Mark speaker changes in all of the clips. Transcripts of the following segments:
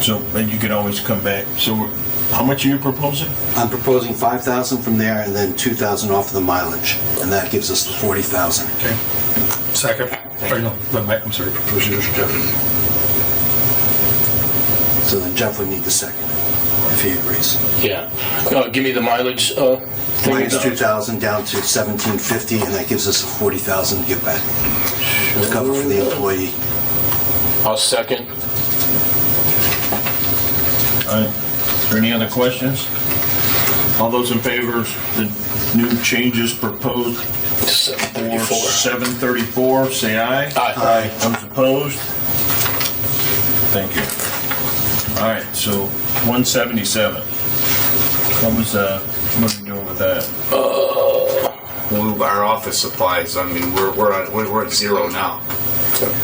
Speaker 1: So, and you could always come back. So, how much are you proposing?
Speaker 2: I'm proposing 5,000 from there and then 2,000 off of the mileage, and that gives us the 40,000.
Speaker 3: Okay. Second. Or no, no, Mike, I'm sorry, Mr. Jeff.
Speaker 2: So then Jeff would need the second, if he agrees.
Speaker 4: Yeah. Uh, give me the mileage. Uh, thing.
Speaker 2: Minus 2,000 down to 1,750, and that gives us a 40,000 give back. To cover for the employee.
Speaker 4: I'll second.
Speaker 1: All right. Is there any other questions? All those in favor of the new changes proposed for
Speaker 4: 734.
Speaker 1: 734, say aye.
Speaker 4: Aye.
Speaker 1: Those opposed? Thank you. All right, so 177. What was, uh, what are we doing with that?
Speaker 5: Well, our office supplies, I mean, we're, we're, at- we're we're at zero now.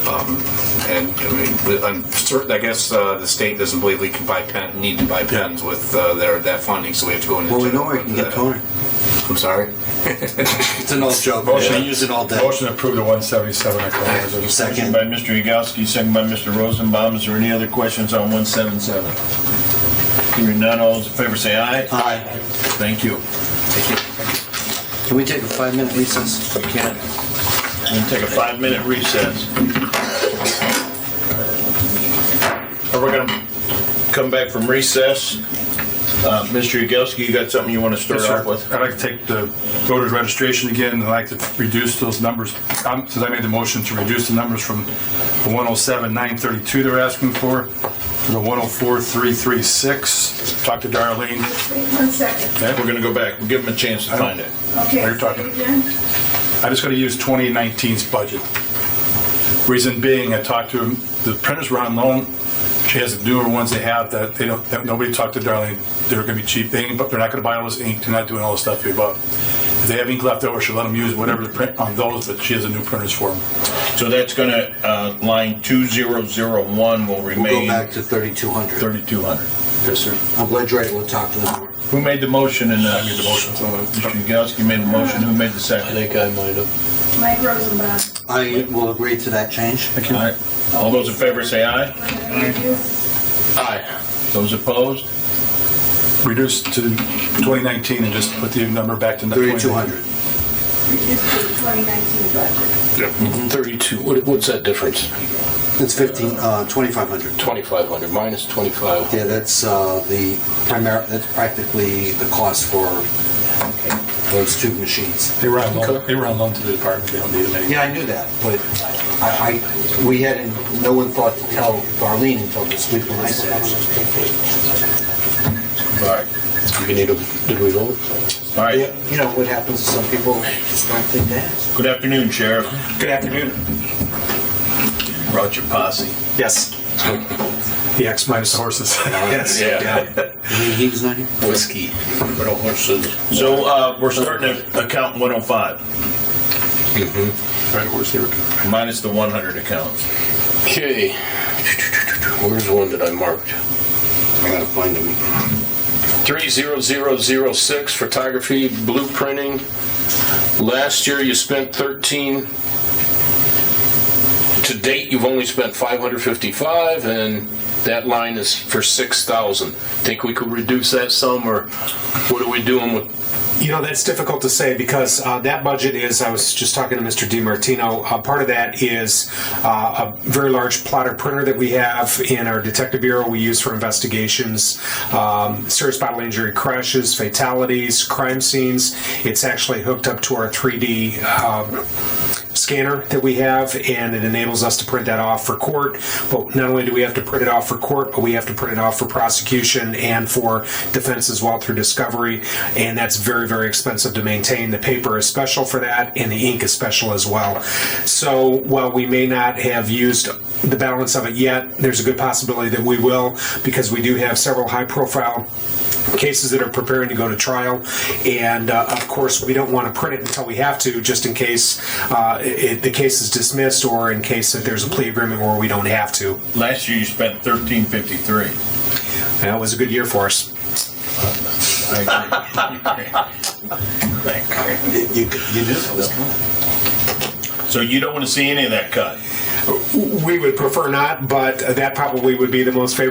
Speaker 5: Um, And, I mean, we- I'm certain, I guess, uh, the state doesn't believe we can buy pen, need to buy pens with, uh, their, that funding, so we have to go into.
Speaker 2: Well, we know where you can get toner.
Speaker 5: I'm sorry?
Speaker 2: It's an old joke.
Speaker 3: Motion.
Speaker 2: I use it all day.
Speaker 3: Motion approved at 177. I call it.
Speaker 1: Motion
Speaker 2: Second.
Speaker 1: by Mr. Yagowski, second by Mr. Rosenbaum. Is there any other questions on 177? Hearing none, all those in favor say aye.
Speaker 2: Aye.
Speaker 1: Thank you.
Speaker 2: Can we take a five-minute recess? We can.
Speaker 1: We're going to take a five-minute recess. And we're going to come back from recess. Uh, Mr. Yagowski, you got something you want to start
Speaker 3: Yes,
Speaker 1: off
Speaker 3: sir.
Speaker 1: with?
Speaker 3: I'd like to take the voter's registration again, and I'd like to reduce those numbers, um, since I made the motion to reduce the numbers from the 107,932 they're asking for, to the 104,336. Talk to Darlene.
Speaker 6: Wait one second.
Speaker 1: Okay, we're going to go back. We'll give them a chance to
Speaker 3: I don't-
Speaker 1: find it.
Speaker 6: Okay.
Speaker 3: Are you talking-
Speaker 6: say again?
Speaker 3: I just gotta use 2019's budget. Reason being, I talked to the printers were on loan. She has the newer ones they have that they don't, that nobody talked to Darlene. They're gonna be cheap, they ain't, but they're not gonna buy all this ink, they're not doing all this stuff you bought. If they have ink left over, she'll let them use whatever the print on those, but she has the new printers for them.
Speaker 1: So that's going to, line 2001 will
Speaker 2: We'll go
Speaker 1: remain
Speaker 2: back to 3,200.
Speaker 1: 3,200.
Speaker 3: Yes, sir.
Speaker 2: I'm glad you're right, we'll talk to them.
Speaker 1: Who made the motion and, uh,
Speaker 3: I made the motion, so,
Speaker 1: Mr. Yagowski made the motion. Who made the
Speaker 4: I
Speaker 1: second?
Speaker 4: think I might have.
Speaker 6: Mike Rosenbaum.
Speaker 2: I will agree to that change.
Speaker 1: All right. All those in favor say aye.
Speaker 6: Wait a minute, you-
Speaker 4: Aye.
Speaker 1: Those opposed?
Speaker 3: reduce to 2019 and just put the number back to.
Speaker 2: 3,200.
Speaker 6: Reduce to the 2019 budget.
Speaker 4: 32. Mm-hmm. What, what's that difference?
Speaker 2: It's 15, uh, 2,500.
Speaker 4: 2,500 minus 25.
Speaker 2: Yeah, that's uh, the primary, that's practically the cost for those two machines.
Speaker 3: They were on loan, they were on loan to the department, they don't need them anymore.
Speaker 2: Yeah, I knew that, but I, I, we hadn't, no one thought to tell Darlene until this week when I said.
Speaker 1: All right.
Speaker 4: We need a, did we vote?
Speaker 1: All right.
Speaker 2: You know, what happens is some people just don't think that.
Speaker 1: Good afternoon, Sheriff.
Speaker 7: Good afternoon.
Speaker 1: Brought your posse.
Speaker 7: Yes. The X minus horses. Yes.
Speaker 2: He's not here?
Speaker 4: Whiskey.
Speaker 1: So, uh, we're starting at account 105,
Speaker 3: Right, where's the-
Speaker 1: minus the 100 accounts.
Speaker 4: Okay. Where's the one that I marked?
Speaker 2: I gotta find him.
Speaker 4: 30006 photography blueprinting. Last year you spent 13. To date, you've only spent 555 and that line is for 6,000. Think we could reduce that sum or what are we doing with?
Speaker 7: You know, that's difficult to say because uh, that budget is, I was just talking to Mr. DiMartino, uh, part of that is uh, a very large plotter printer that we have in our detective bureau we use for investigations, um, serious bodily injury crashes, fatalities, crime scenes. It's actually hooked up to our 3D um, scanner that we have, and it enables us to print that off for court. But not only do we have to print it off for court, but we have to print it off for prosecution and for defense as well through discovery. And that's very, very expensive to maintain. The paper is special for that, and the ink is special as well. So while we may not have used the balance of it yet, there's a good possibility that we will because we do have several high profile cases that are preparing to go to trial. And uh, of course, we don't want to print it until we have to, just in case uh, it, the case is dismissed or in case that there's a plea agreement where we don't have to.
Speaker 1: Last year you spent 1353.
Speaker 7: That was a good year for us.
Speaker 2: You, you you knew that was coming.
Speaker 1: So you don't want to see any of that cut?
Speaker 7: We would prefer not, but that probably would be the most favorable